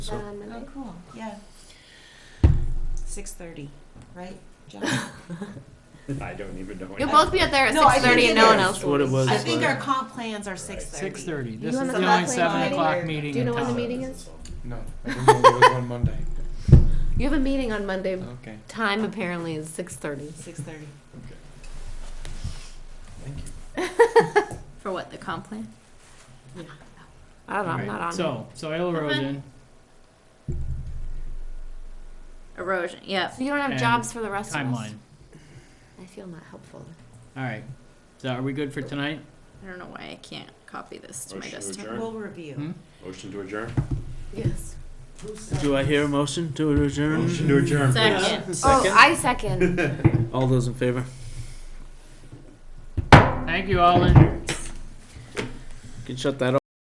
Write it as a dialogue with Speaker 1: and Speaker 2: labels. Speaker 1: So-
Speaker 2: on
Speaker 3: Oh,
Speaker 2: Uh, Monday.
Speaker 3: cool.
Speaker 4: Yeah. Six thirty, right? John?
Speaker 1: I don't even know.
Speaker 2: You'll both be out there at
Speaker 4: No, I
Speaker 2: six thirty,
Speaker 4: think
Speaker 2: and
Speaker 4: it
Speaker 2: no one
Speaker 4: is.
Speaker 2: else
Speaker 1: What
Speaker 2: will.
Speaker 1: it
Speaker 2: be.
Speaker 1: was
Speaker 4: I think our
Speaker 1: Right.
Speaker 4: comp plans are six thirty.
Speaker 5: Six thirty. This
Speaker 2: You
Speaker 5: is
Speaker 2: on the
Speaker 5: the
Speaker 2: clock,
Speaker 5: only
Speaker 2: like,
Speaker 5: seven
Speaker 2: already?
Speaker 5: o'clock meeting
Speaker 2: Do you know
Speaker 5: in
Speaker 2: when the
Speaker 5: town.
Speaker 2: meeting is?
Speaker 5: No, I didn't know there was one Monday.
Speaker 2: You have a meeting on Monday.
Speaker 5: Okay,
Speaker 2: Time apparently is six thirty.
Speaker 4: Six thirty.
Speaker 5: thank you.
Speaker 3: For what, the comp plan?
Speaker 2: I don't know. I'm
Speaker 5: Alright,
Speaker 2: not on. it.
Speaker 5: So, soil erosion,
Speaker 3: Erosion, yep.
Speaker 2: So you don't have
Speaker 5: and
Speaker 2: jobs for the rest of us.
Speaker 5: timeline.
Speaker 2: I feel not helpful.
Speaker 5: All right. So are we good for tonight?
Speaker 3: I don't know why I can't copy this to my
Speaker 1: Motion to
Speaker 3: desktop.
Speaker 1: adjourn.
Speaker 4: We'll review.
Speaker 5: Hmm?
Speaker 1: Motion to adjourn?
Speaker 2: Yes.
Speaker 6: Do I hear a motion to adjourn?
Speaker 1: Motion to adjourn.
Speaker 3: Second.
Speaker 2: Oh, I second.
Speaker 6: All those in favor?
Speaker 5: Thank you, all. and-
Speaker 6: You can shut that off.